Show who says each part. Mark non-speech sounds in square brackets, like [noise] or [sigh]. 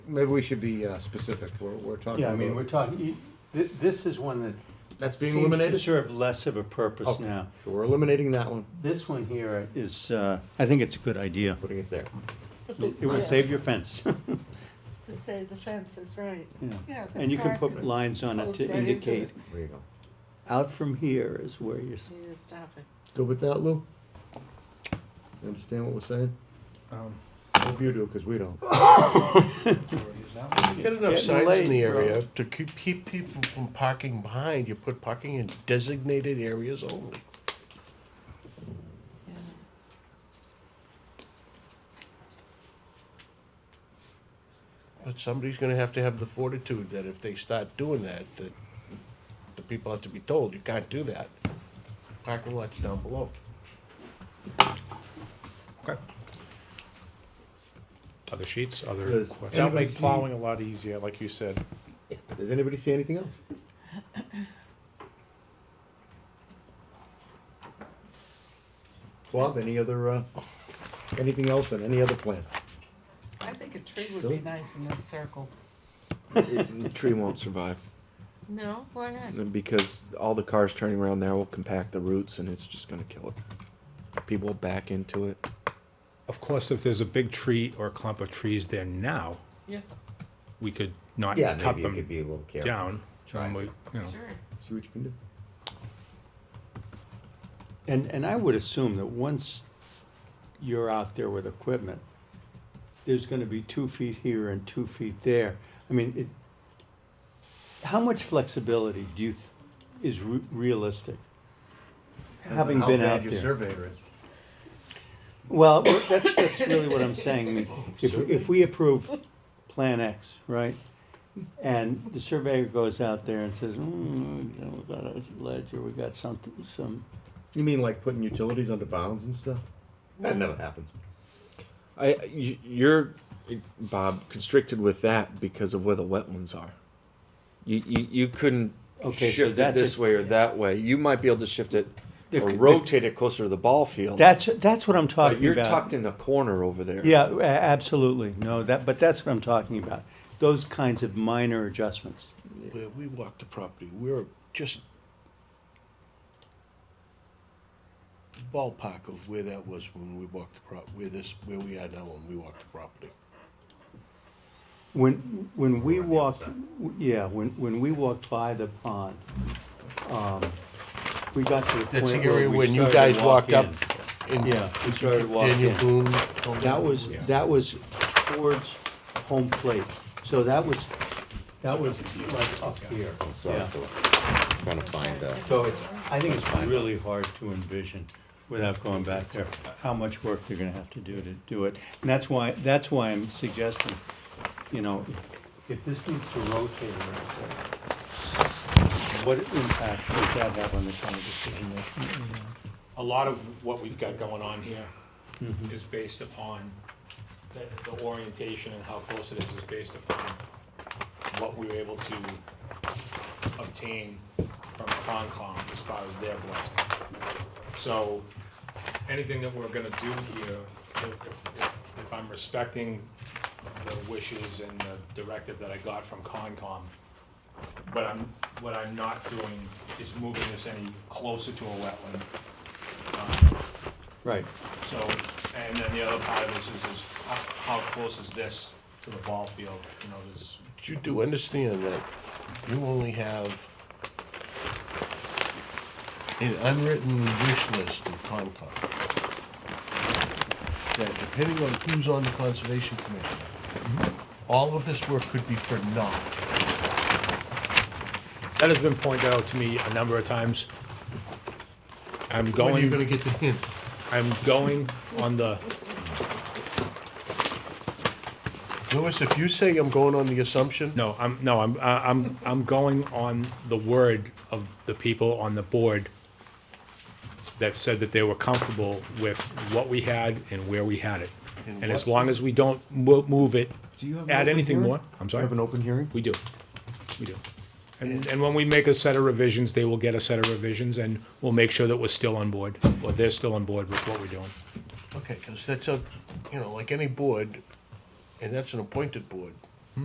Speaker 1: maybe we should be uh, specific, we're, we're talking
Speaker 2: Yeah, I mean, we're
Speaker 1: about,
Speaker 2: talking, you- thi- this is one that
Speaker 1: that's being
Speaker 2: seems to
Speaker 1: eliminated?
Speaker 2: serve less of a purpose
Speaker 1: Okay.
Speaker 2: now.
Speaker 1: So we're eliminating that one,
Speaker 2: This one here is, uh, I think it's a good idea.
Speaker 1: putting it there.
Speaker 2: It it will save your fence. [laughs]
Speaker 3: To save the fences, right.
Speaker 2: Yeah.
Speaker 3: Yeah, 'cause
Speaker 2: And you can
Speaker 3: cars
Speaker 2: put lines on it
Speaker 3: Goes
Speaker 2: to
Speaker 3: right into
Speaker 2: indicate,
Speaker 3: it.
Speaker 1: There you go.
Speaker 2: out from here is where you're, s-
Speaker 3: You just stop it.
Speaker 1: Good with that, Lou? You understand what we're saying?
Speaker 4: Um,
Speaker 1: Hope you do, because we don't.
Speaker 4: Well,
Speaker 5: Get
Speaker 2: It's
Speaker 5: enough
Speaker 2: getting
Speaker 5: signs
Speaker 2: late,
Speaker 5: in the
Speaker 2: bro.
Speaker 5: area to keep, keep people from parking behind, you put parking in designated areas only.
Speaker 3: Yeah.
Speaker 5: But somebody's gonna have to have the fortitude that if they start doing that, that the people have to be told, you can't do that. Parking lots down below.
Speaker 4: Other sheets, other
Speaker 1: Does
Speaker 4: questions?
Speaker 1: anybody
Speaker 4: Anybody
Speaker 1: see,
Speaker 4: plowing a lot easier, like you said.
Speaker 1: does anybody see anything else? Bob, any other, uh, anything else on any other plan?
Speaker 3: I think a tree would be
Speaker 1: Don't-
Speaker 3: nice in that circle.
Speaker 6: it, the tree won't survive
Speaker 3: No, why not?
Speaker 6: because all the cars turning around there will compact the roots and it's just going to kill it. People will back into it.
Speaker 4: Of course, if there's a big tree or a clump of trees there now,
Speaker 3: Yeah,
Speaker 4: we could not
Speaker 1: Yeah,
Speaker 4: cut
Speaker 1: maybe it could
Speaker 4: them
Speaker 1: be a little careful.
Speaker 4: down.
Speaker 1: Try.
Speaker 4: and we- you know.
Speaker 3: sure.
Speaker 1: See what you can do.
Speaker 2: and, and I would assume that once you're out there with equipment, there's gonna be two feet here and two feet there. I mean, it, how much flexibility do you, th- is re- realistic?
Speaker 1: Depends on
Speaker 2: Having
Speaker 1: how
Speaker 2: been
Speaker 1: bad
Speaker 2: out
Speaker 1: your
Speaker 2: there.
Speaker 1: surveyor is.
Speaker 2: Well, well, that's, that's really what I'm saying. I mean, If, if we approve Plan X, right? And the surveyor goes out there and says, mm, you know, we got a ledge or we got something, some,
Speaker 1: You mean like putting utilities under bounds and stuff? That never happens.
Speaker 6: I you, you're Bob constricted with that because of where the wetlands are. You you, you couldn't
Speaker 2: Okay, so
Speaker 6: shift it
Speaker 2: that's
Speaker 6: this
Speaker 2: a-
Speaker 6: way or that way. You might be able to shift it
Speaker 2: The-
Speaker 6: or
Speaker 2: the-
Speaker 6: rotate it closer to the ball field.
Speaker 2: that's, that's what I'm
Speaker 6: but
Speaker 2: talking
Speaker 6: you're
Speaker 2: about.
Speaker 6: tucked in a corner over there.
Speaker 2: Yeah, a- absolutely. No, that, but that's what I'm talking about. Those kinds of minor adjustments.
Speaker 5: Where we walk the property, we're just ballpark of where that was when we walked the prop, where this, where we are now when we walked the property.
Speaker 2: When, when we walked, yeah, when, when we walked by the pond, um, we got to the
Speaker 5: That's the
Speaker 2: point where
Speaker 5: area
Speaker 2: we
Speaker 5: when you
Speaker 2: started
Speaker 5: guys
Speaker 2: to walk
Speaker 5: walked up
Speaker 2: in.
Speaker 5: and
Speaker 2: Yeah, we started walking
Speaker 5: Daniel
Speaker 2: in.
Speaker 5: Boone.
Speaker 2: That was, that was towards home plate, so that was, that was like up here, yeah.
Speaker 7: Trying to find, uh,
Speaker 2: So it's, I think it's really hard to envision, without going back there, how much work they're gonna have to do to do it. And that's why, that's why I'm suggesting, you know, if this needs to rotate or anything, what impact does that have on the kind of decision making?
Speaker 8: a lot of what we've got going on here is based upon, the, the orientation and how close it is is based upon what we were able to obtain from Concom as far as their blessing. So, anything that we're gonna do here, if, if- if- if I'm respecting the wishes and the directive that I got from Concom, what I'm, what I'm not doing is moving this any closer to a wetland. Um,
Speaker 2: Right,
Speaker 8: So, and then the other part of this is, is how, how close is this to the ball field, you know, there's,
Speaker 5: You do understand that you only have an unwritten wish list of Concom. That depending on who's on the Conservation Commission,
Speaker 4: Mm-hmm.
Speaker 5: all of this work could be for naught.
Speaker 4: That has been pointed out to me a number of times. I'm
Speaker 5: When are you gonna
Speaker 4: going,
Speaker 5: get the hint?
Speaker 4: I'm going on the,
Speaker 5: Louis, if you say I'm going on the assumption,
Speaker 4: no, I'm, no, I'm, I- I'm, I'm going on the word of the people on the board that said that they were comfortable with what we had and where we had it.
Speaker 5: And
Speaker 4: And as
Speaker 5: what-
Speaker 4: long as we don't mo- move it,
Speaker 1: Do you have an
Speaker 4: add
Speaker 1: open
Speaker 4: anything
Speaker 1: hearing?
Speaker 4: more, I'm
Speaker 1: Do you
Speaker 4: sorry.
Speaker 1: have an open hearing?
Speaker 4: We do, we do. And, and when we make a set of revisions, they will get a set of revisions, and we'll make sure that we're still on board, or they're still on board with what we're doing.
Speaker 5: okay, because that's a, you know, like any board, and that's an appointed board,